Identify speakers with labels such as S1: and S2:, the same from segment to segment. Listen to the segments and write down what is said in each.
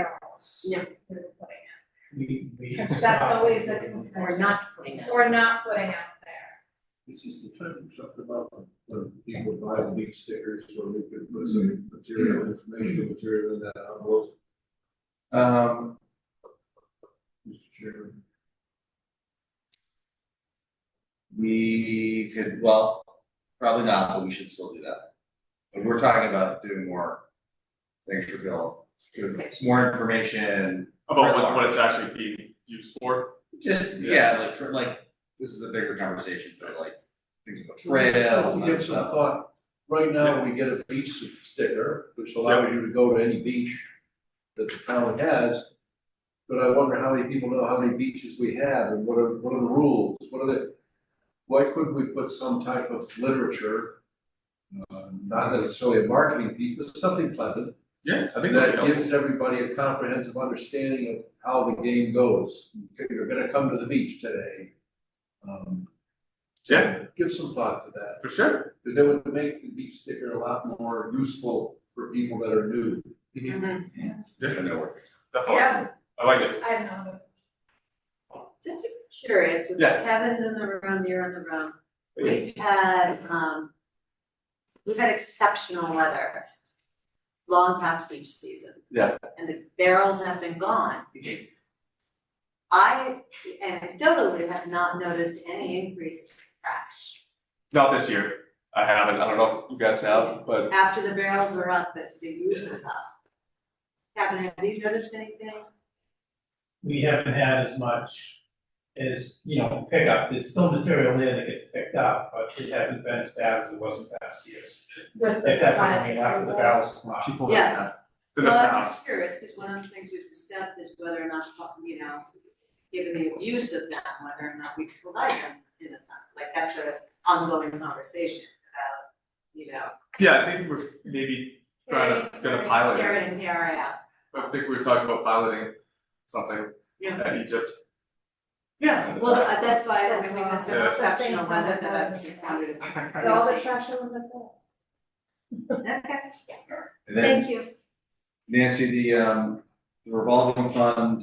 S1: barrels.
S2: Yeah.
S1: we were putting
S3: We, we.
S1: in. That's always a contention.
S2: Or not putting it.
S1: Or not putting out there.
S4: This is the time we talked about when people buy the big stickers where we could put some material, informational material in that envelope. Um. Mr. Chairman.
S5: We could, well, probably not, but we should still do that. But we're talking about doing more things for Bill, more information,
S6: About what, what it's actually being used for,
S5: just, yeah, like, tr- like, this is a bigger conversation for like, things about trails
S4: Well,
S5: and
S4: we
S5: other
S4: give some
S5: stuff.
S4: thought, right now, we get a beach sticker, which allows you to go to any beach that the town has. But I wonder how many people know how many beaches we have and what are, what are the rules, what are the, why couldn't we put some type of literature? uh, Not necessarily a marketing piece, but something pleasant,
S6: yeah, I think that'd be
S4: that
S6: helpful.
S4: gives everybody a comprehensive understanding of how the game goes. Okay, You're gonna come to the beach today. Um, so
S6: Yeah.
S4: Give some thought to that.
S6: for sure,
S4: Because that would make the beach sticker a lot more useful for people that are new.
S2: Mhm.
S5: I don't know where-
S6: definitely.
S2: Yeah.
S6: I like it,
S1: I don't know.
S7: Just curious, with
S6: Yeah.
S7: Kevin's in the room, you're in the room, we've had, um, we've had exceptional weather long past beach season.
S6: Yeah. Mm-hmm.
S7: And the barrels have been gone. I anecdotally have not noticed any increase in trash.
S6: not this year, I haven't, I don't know if you guys have, but
S7: After the barrels are up, but the use is up. Kevin, have you noticed anything?
S3: We haven't had as much as, you know, pickup, there's still material there that gets picked up, but it hasn't been as bad as it was in past years.
S1: With the
S3: If that, I mean, after the
S1: biological-
S3: barrels come out.
S6: people.
S7: Yeah.
S6: The
S7: Well, I'm
S6: town,
S7: just curious, because one of the things we've discussed is whether or not, to talk, you know, given the use of them, whether or not we can provide them in a time. Like, that's an ongoing conversation about, you know,
S6: yeah, I think we're maybe trying to, gonna pilot
S7: here
S6: it,
S7: in, here out.
S6: I think we were talking about piloting something
S7: Yeah.
S6: at Egypt.
S7: Yeah. Well, uh, that's why, I mean, we've had some
S6: Yeah.
S7: exceptional weather that I just wanted to.
S1: With All the trash on the floor.
S7: Okay,
S5: And then
S7: thank you.
S5: Nancy, the um, the revolving fund.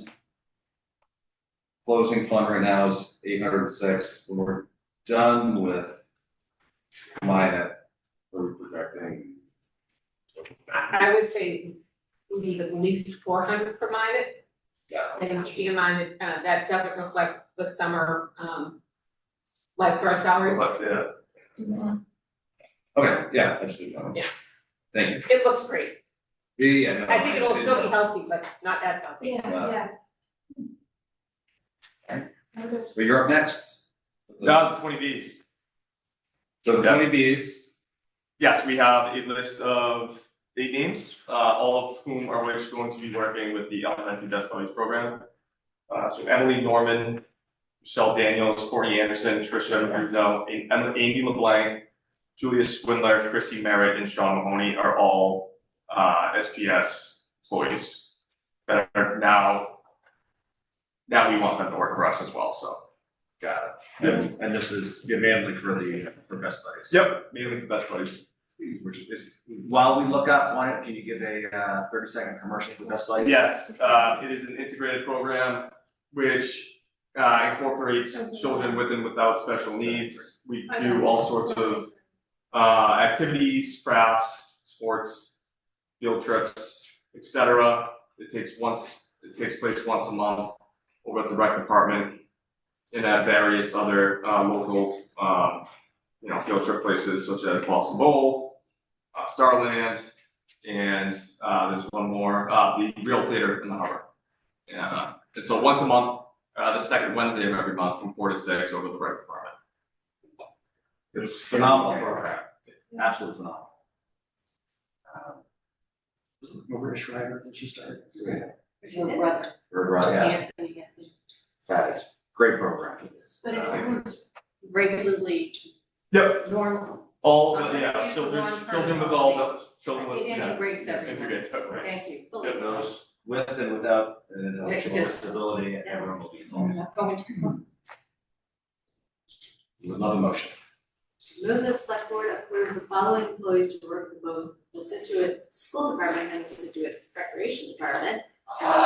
S5: Closing fund right now is eight hundred and six, we're done with. Minor, we're projecting.
S2: I would say we need at least four hundred for mine,
S5: Yeah.
S2: and keeping in mind that, uh, that doesn't reflect the summer, um, lifeguard salaries.
S6: But, yeah,
S5: Okay, yeah, I just did that.
S2: Yeah.
S5: Thank you.
S2: It looks great,
S5: Yeah, Yeah, no,
S2: I think it'll
S5: did
S2: still be
S5: that.
S2: healthy, but not as healthy.
S1: Yeah,
S5: Wow.
S1: yeah.
S5: Okay.
S1: I'm just-
S5: But you're up next.
S6: down to twenty Bs.
S5: So
S6: Yeah.
S5: twenty Bs,
S6: Yes, we have a list of eight names, uh, all of whom are which going to be working with the elementary desk buddies program. Uh, so Emily Norman, Michelle Daniels, Courtney Anderson, Tricia Bruno, Amy LeBlanc, Julia Swindler, Chrissy Merritt, and Sean Mahoney are all, uh, SPS employees that are now, now we want them to work for us as well, so.
S5: got it. And- And this is mainly for the, for Best Buddies.
S6: Yep, mainly the best buddies.
S5: Which is, while we look up, why don't, can you give a uh, thirty second commercial for Best Buddies?
S6: Yes, uh, it is an integrated program which uh, incorporates children with and without special needs. We do all sorts of uh, activities, crafts, sports, field trips, etc. It takes once, it takes place once a month over at the rec department and at various other uh, local, um, you know, field trip places such as Boston Bowl, uh, Starland, and uh, there's one more, uh, the Real Theater in the Harbor. Yeah, uh, it's a once a month, uh, the second Wednesday of every month from four to six over the rec department.
S5: It's phenomenal program, absolutely phenomenal. Um, Was it Maria Schreiber that she started? Her brother, uh, yeah, that is great program. Uh,
S7: But it includes regularly
S6: Yep,
S7: normal,
S6: all,
S7: Okay.
S6: the yeah,
S7: Use the
S6: children,
S7: one for
S6: children
S7: the
S6: with all
S7: holiday.
S6: the, children with,
S7: it
S6: yeah.
S7: integrates
S6: Yes,
S7: everything,
S6: integrates everything.
S7: thank you.
S5: Yeah, those with and without an intellectual
S7: Yeah.
S5: disability, everyone will be involved. We would love a motion.
S7: Move the select board approve the following employees to work for both the Situate School Department and the Situate Recreation Department